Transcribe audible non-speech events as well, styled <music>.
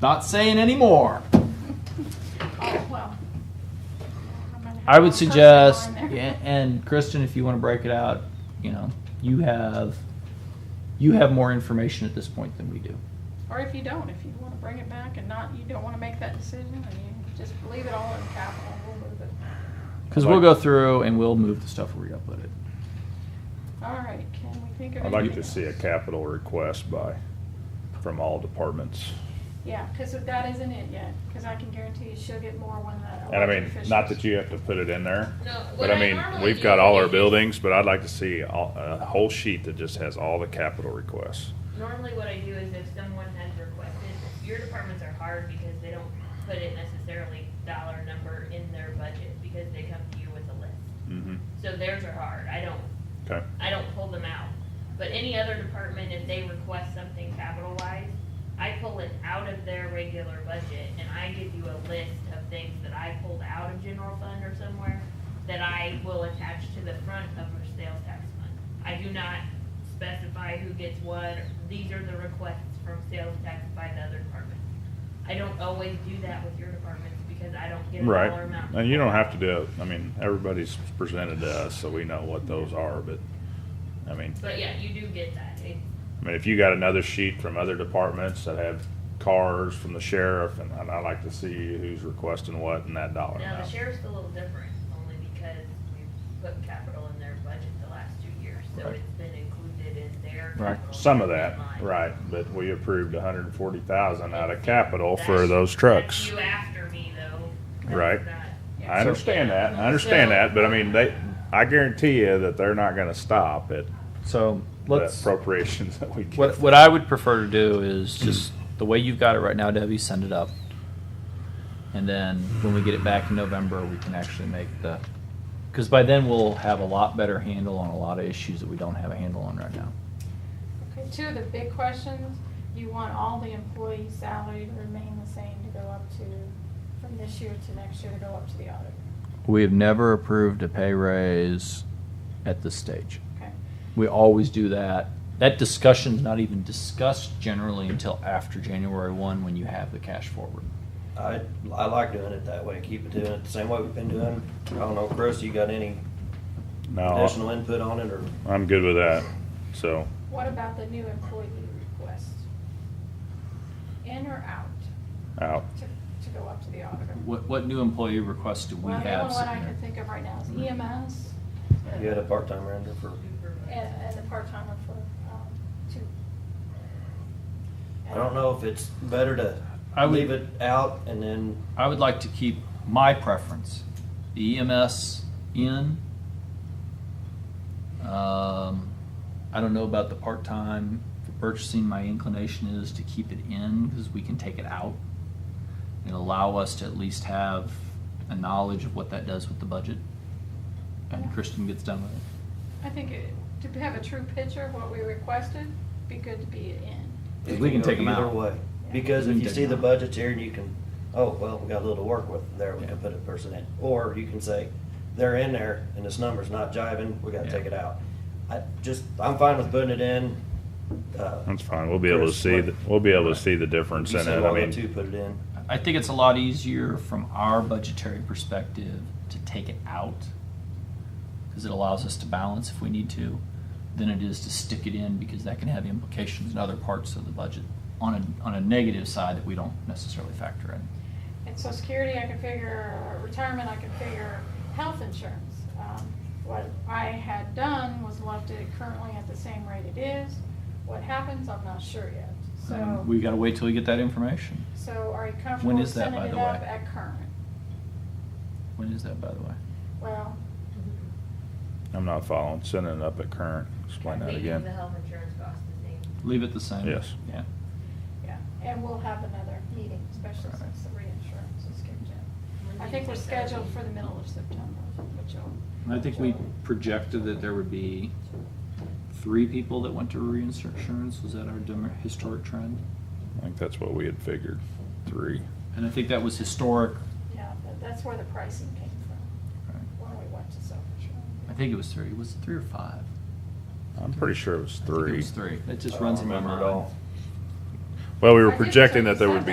Not saying anymore. Oh, well. No matter I how would personal suggest, in there. yeah, and Kristen, if you want to break it out, you know, you have you have more information at this point than we do. Or if you don't, if you wanna bring it back and not, you don't wanna make that decision and you just leave it all in capital, we'll move it. Because we'll go through and we'll move the stuff where we upload it. All right, can we think of anything? I'd like to see else? a capital request by, from all departments. Yeah, cause that isn't it yet, cause I can guarantee you she'll get more when that. And I mean, elected not officials- that you have to put it in there, No, but what I I mean, normally we've do got all our is- buildings, but I'd like to see all- a whole sheet that just has all the capital requests. Normally what I do is if someone has requested, your departments are hard because they don't put it necessarily dollar number in their budget because they come to you with a list. Mhm. So theirs are hard. I don't, Okay, I don't pull them out. But any other department, if they request something capitalized, I pull it out of their regular budget and I give you a list of things that I pulled out of general fund or somewhere that I will attach to the front of our sales tax fund. I do not specify who gets what, these are the requests from sales tax by the other departments. I don't always do that with your departments because I don't get a right. dollar amount. And you don't have to do it, I mean, everybody's presented to us, so we know what those are, but, I mean, But yeah, you do get that. It- I mean, if you got another sheet from other departments that have cars from the sheriff, and and I'd like to see who's requesting what and that dollar Now, the amount. sheriff's a little different, only because we've put capital in their budget the last two years, so Right. it's been included in their Right. capital Some of that, line. right, but we approved a hundred and forty thousand out of capital for That's- those trucks. That's you after me, though. That's Right. not- I understand that, I understand that, but I mean, they, I guarantee you that they're not gonna stop at So the let's. appropriations <laughs> that we get. What what I would prefer to do is just the way you've got it right now, Debbie. Send it up, and then when we get it back in November, we can actually make the. Because by then we'll have a lot better handle on a lot of issues that we don't have a handle on right now. Okay, Two of the big questions, you want all the employee salary to remain the same to go up to, from this year to next year to go up to the auditor. We have never approved a pay raise at this stage. Okay, We always do that. That discussion's not even discussed generally until after January one, when you have the cash forward. I, I like doing it that way, keep it doing it the same way we've been doing. I don't know, Chris, you got any No, additional input on it, or I'm good with that, so, what about the new employee request? In or out out. to, to go up to the auditor? What what new employee requests do we Well, the have? only one I sitting can there? think of right now is E EMS you had a part-timer in there for, and, and the part-timer for, um, two. I don't know if it's better I to would- leave it out and then, I would like to keep my preference, the EMS in. Um, I don't know about the part-time for purchasing. My inclination is to keep it in because we can take it out and allow us to at least have a knowledge of what that does with the budget. And Kristen gets done with it. I think it, to have a true picture of what we requested, be good to be in. it We can go take 'em either out. way. Because We if can you take see 'em the out. budgets here and you can, oh, well, we got a little to work with, there we Yeah. can put a person in. Or you can say, they're in there and this number's not jiving, we gotta Yeah. take it out. I just, I'm fine with putting it in. uh, That's fine, we'll be able to Chris, see, what- the- we'll be able to see the difference You in said it, why I not to mean, put it in. I think it's a lot easier from our budgetary perspective to take it out because it allows us to balance if we need to than it is to stick it in because that can have implications in other parts of the budget on a, on a negative side that we don't necessarily factor in. And social security, I can figure, or retirement, I can figure, health insurance. Um, What I had done was left it currently at the same rate it is. What happens, I'm not sure yet. And So, Um, we got to wait till we get that information. so are you comfortable When is that, sending by it the up way? at current? When is that, by the way? Well, I'm not following, sending it up at current, explain that Making The again. health insurance cost the same. Leave it the same. Yes. Yeah. yeah, and we'll have another meeting, especially Right. since the reinsurance is kicked in. When I do think you we're that'll be? scheduled for the middle of September, which will. And I think we projected that there would be three people that went to reinsurance. Was that our dem- historic trend? I think that's what we had figured, three. And I think that was historic. Yeah, but that's where the pricing came from, Right. when we went to self-insurance. I think it was three. Was it three or five? I'm pretty sure it was I think three. it was three. It just I don't runs in my remember mind. at all. Well, we I were think that's projecting what that there you would said. be